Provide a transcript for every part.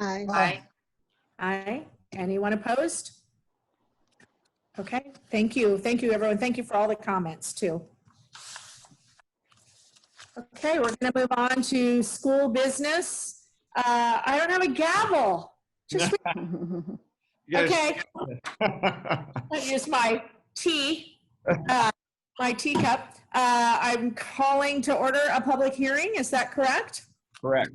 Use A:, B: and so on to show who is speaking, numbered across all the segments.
A: Aye.
B: Aye.
C: Aye. Anyone opposed? Okay, thank you. Thank you, everyone. Thank you for all the comments, too. Okay, we're going to move on to school business. Uh, I don't have a gavel. Just,
B: Yes.
C: okay, I use my tea, uh, my teacup. Uh, I'm calling to order a public hearing. Is that correct?
B: Correct.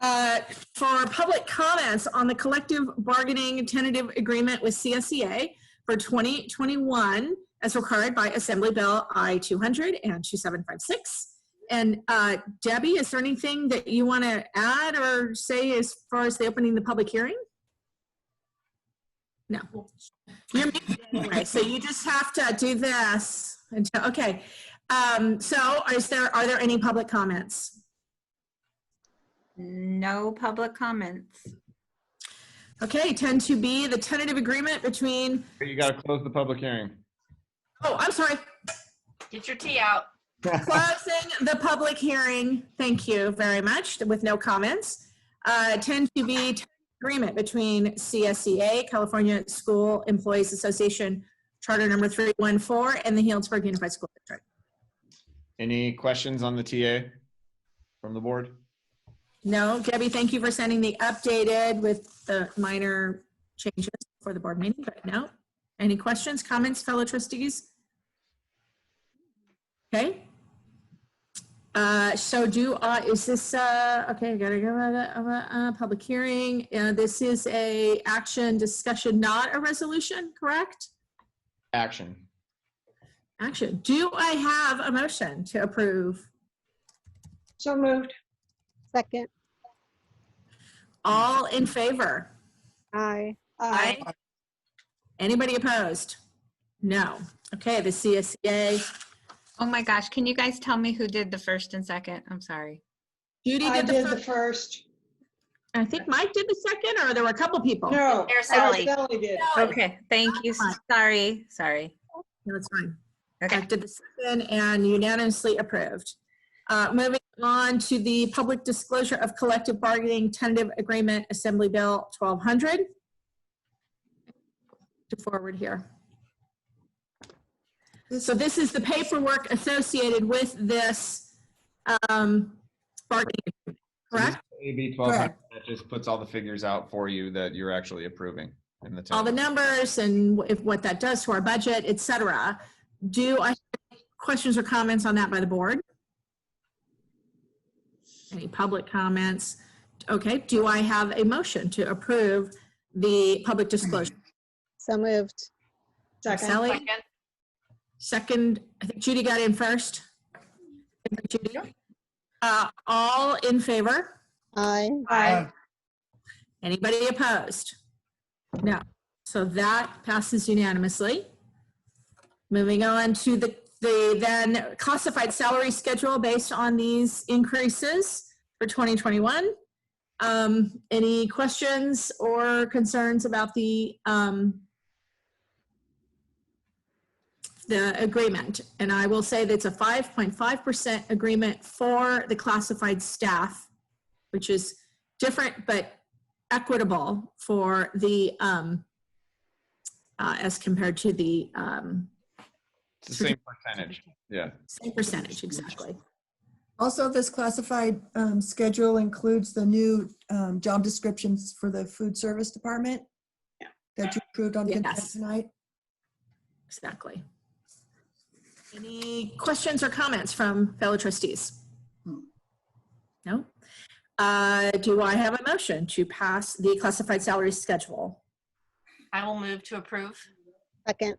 C: Uh, for public comments on the collective bargaining tentative agreement with CSEA for 2021 as required by Assembly Bill I 200 and 2756. And uh, Debbie, is there anything that you want to add or say as far as the opening the public hearing? No. You're muted anyway, so you just have to do this. until- Okay. Um, so is there, are there any public comments?
D: No public comments.
C: Okay, 10 to B, the tentative agreement between,
B: You got to close the public hearing.
C: oh, I'm sorry,
E: Get your tea out.
C: closing the public hearing. Thank you very much, with no comments. Uh, 10 to B, tentative agreement between CSEA, California School Employees Association, Charter Number 314, and the Healdsburg Unified School District.
B: Any questions on the TA from the board?
C: No, Debbie, thank you for sending the updated with the minor changes for the board meeting, but no. Any questions, comments, fellow trustees? Okay. Uh, so do, uh, is this, uh, okay, I gotta go, uh, uh, uh, public hearing. Uh, this is a action discussion, not a resolution, correct?
B: Action.
C: Action. Do I have a motion to approve?
A: So moved. Second.
C: All in favor?
A: Aye.
E: Aye.
C: Anybody opposed? No. Okay, the E CSEA
D: Oh my gosh, can you guys tell me who did the first and second? I'm sorry.
C: Judy
F: I
C: did the
F: did the
C: first.
F: first.
C: I think Mike did the second, or there were a couple people.
F: No.
E: Araceli.
F: Araceli did.
E: Oh,
D: Okay, thank you. Sorry, sorry. Um,
C: No, it's fine.
D: Okay.
C: Mike Did the second and unanimously approved. Uh, moving on to the public disclosure of collective bargaining tentative agreement, Assembly Bill twelve hundred. To forward here. So this is the paperwork associated with this, um, bargaining, agreement, correct?
B: AB 1200 that just puts all the figures out for you that you're actually approving in the
C: all the
B: text.
C: numbers and if, what that does to our budget, et cetera. Do I, have questions or comments on that by the board? Any public comments? Okay, do I have a motion to approve the public disclosure?
A: So moved.
F: Second.
C: Sally,
E: Second.
C: second, I think Judy got in first. Judy? Uh, all in favor?
A: Aye.
F: Aye.
C: Anybody opposed? No. So that passes unanimously. Moving on to the, the then classified salary schedule based on these increases for 2021. Um, any questions or concerns about the, um, the agreement? And I will say that's a 5.5% agreement for the classified staff, which is different but equitable for the, um, uh, as compared to the, um,
B: It's the same percentage. Yeah.
C: same percentage, exactly.
G: Also, this classified um, schedule includes the new um, job descriptions for the food service department that you approved on consent
C: Yes.
G: tonight.
C: Exactly. Any questions or comments from fellow trustees? No? Uh, Do I have a motion to pass the classified salary schedule?
E: I will move to approve.
A: Second.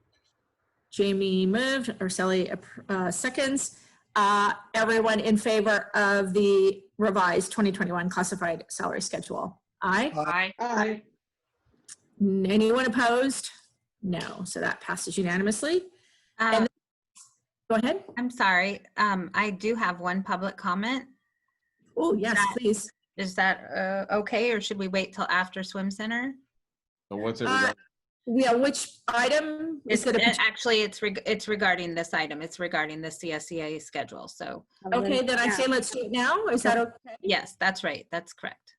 C: Jamie moved, Ursula uh, seconds. Uh, Everyone in favor of the revised 2021 classified salary schedule? Aye?
E: Aye.
A: Aye.
C: N- Anyone opposed? No, so that passes unanimously.
D: Um,
C: Go ahead.
D: I'm sorry. Um, I do have one public comment.
C: Oh, yes,
D: That-
C: please.
D: Is that uh, okay, or should we wait till after swim center?
B: So what's it?
C: Uh,
B: regarding?
C: Yeah, which item is
D: It's,
C: it?
D: it-
C: a-
D: actually, it's, reg- it's regarding this item. It's regarding the CSEA schedule. So
C: Okay, then I say let's do it now. Is that okay?
D: yes, that's right. That's correct.